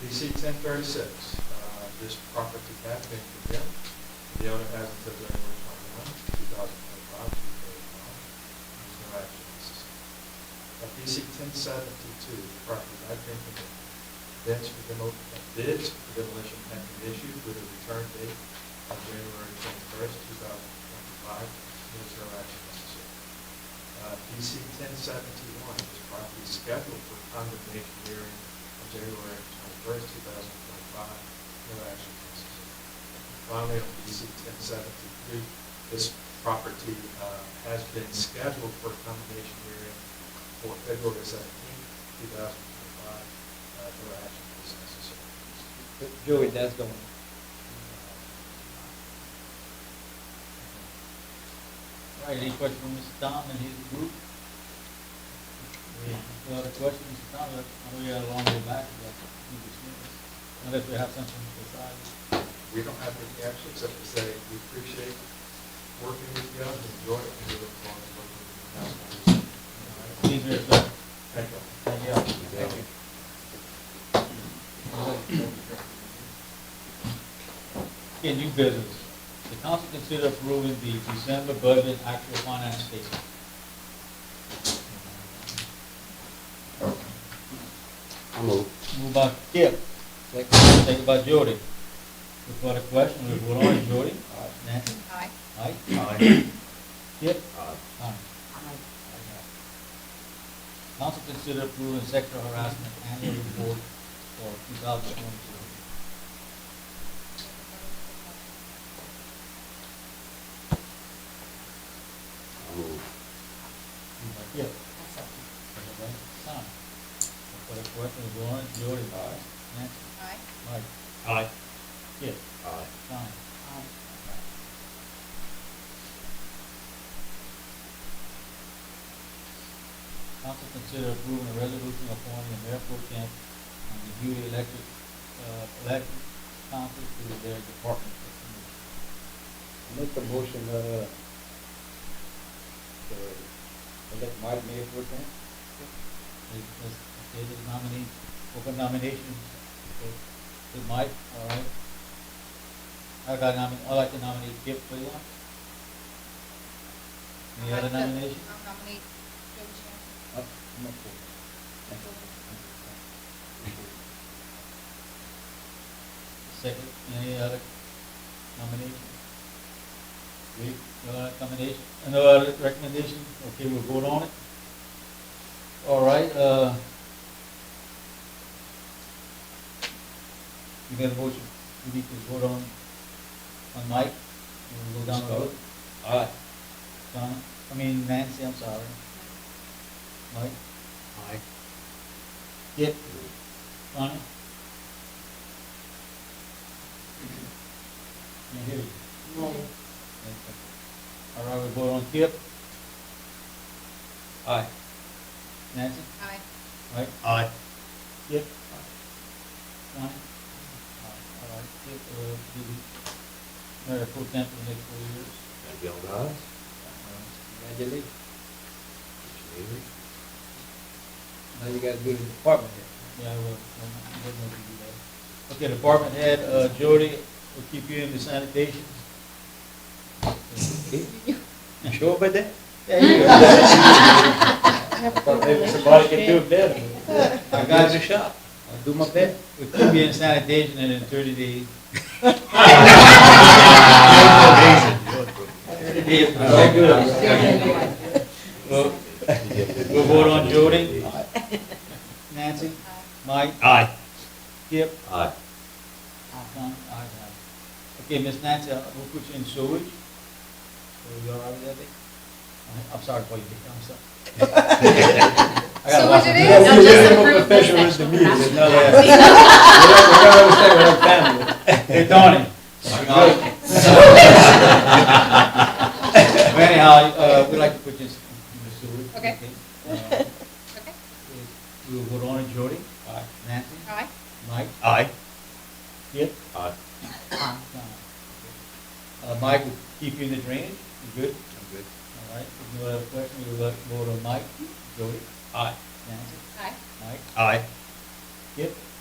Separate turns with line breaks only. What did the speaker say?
PC ten thirty-six, uh, this property has been condemned. The owner has until January twenty-one, two thousand twenty-five, to pay the bond. There's no action necessary. Uh, PC ten seventy-two, property has been condemned. Bids for demo, uh, bids for demolition have been issued with a return date of January twenty-first, two thousand twenty-five. There's no action necessary. Uh, PC ten seventy-one, this property is scheduled for condemnation hearing on January twenty-first, two thousand twenty-five, no action necessary. And Finally, on PC ten seventy-three, this property, uh, has been scheduled for condemnation hearing for February seventeenth, two thousand twenty-five, uh, no action is necessary.
But Joey, that's going.
Uh,
All right, any questions from Mr. Tom and his group? Any other questions, Mr. Tom, I know you had a long way back, but you dismissed, unless we have something to decide.
We don't have any action except to say we appreciate working with you and enjoy it and we look forward to working with you. All right.
Please, Mr. Tom.
Thank you.
Thank you.
Thank you.
In new business, the council consider approving the December budget actual finance statement.
I move.
Move by Skip,
Second.
second by Jody. Before the question, we vote on it, Jody. Nancy?
Aye.
Aye. Aye. Skip?
Aye.
Aye. Council consider approving sexual harassment annual report for two thousand twenty-two.
I move.
Yep. Tom. For the question, we vote on it, Jody. Aye. Nancy?
Aye.
Mike?
Aye.
Skip?
Aye.
Tom? Council consider approving a resolution appointing a mayor pro temp and the newly elected, uh, elected council to their department.
Make a motion, uh, to elect Mike Mayor for that.
Is, is, okay, the nominee, open nominations, okay, to Mike, all right? I got nomin, I'd like to nominate Kip Freeland. Any other nomination?
I'll nominate Joe Chan.
Uh, I'm not for
Second, any other nomination? Wait, no other nomination, no other recommendation, okay, we'll vote on it. All right, uh. You got a motion, we need to vote on, on Mike, and we'll go down the road. All right. Donna, I mean Nancy, I'm sorry, Mike,
Aye.
Yep. Donna? Can't hear you. All right, we vote on Kip. Aye. Nancy?
Aye.
Right?
Aye.
Kip? Aye. All right, Kip, uh, did we, Mayor Pro Tem for the next four years?
That'd be all ayes.
Congratulations.
Maybe.
Now you gotta do the department head.
Yeah, I will, I didn't know if you do that. Okay, Department Head, uh, Jody, we'll keep you in the sanitation.
You sure about that?
There you go.
Thought maybe somebody could do it better.
I got you.
shot. I'll do my best.
We'll keep you in sanitation and in thirty days. Thirty days.
Very good.
We'll we'll vote on Jody, Nancy,
Aye.
Mike,
Aye.
Kip.
Aye.
Tom, aye, aye. Okay, Miss Nancy, uh, we'll put you in sewage. So you all right with that? I- I'm sorry for you, Dick, I'm sorry. I got a
So
lot
what
to
it
do.
is,
Yeah,
I'll
we
just
have a
approve the
professional
sexual
intermediate,
harassment.
no, yeah. We don't say we're a family.
Hey, Donnie. Anyhow, uh, we'd like to put this in the sewer.
Okay.
Uh,
Okay.
We will vote on it, Jody. Aye. Nancy.
Aye.
Mike.
Aye.
Yep.
Aye.
Uh, Mike will keep you in the drainage. You good?
I'm good.
All right. If you have a question, we'll vote on Mike, Jody.
Aye.
Nancy.
Aye.
Mike.
Aye.
Yep.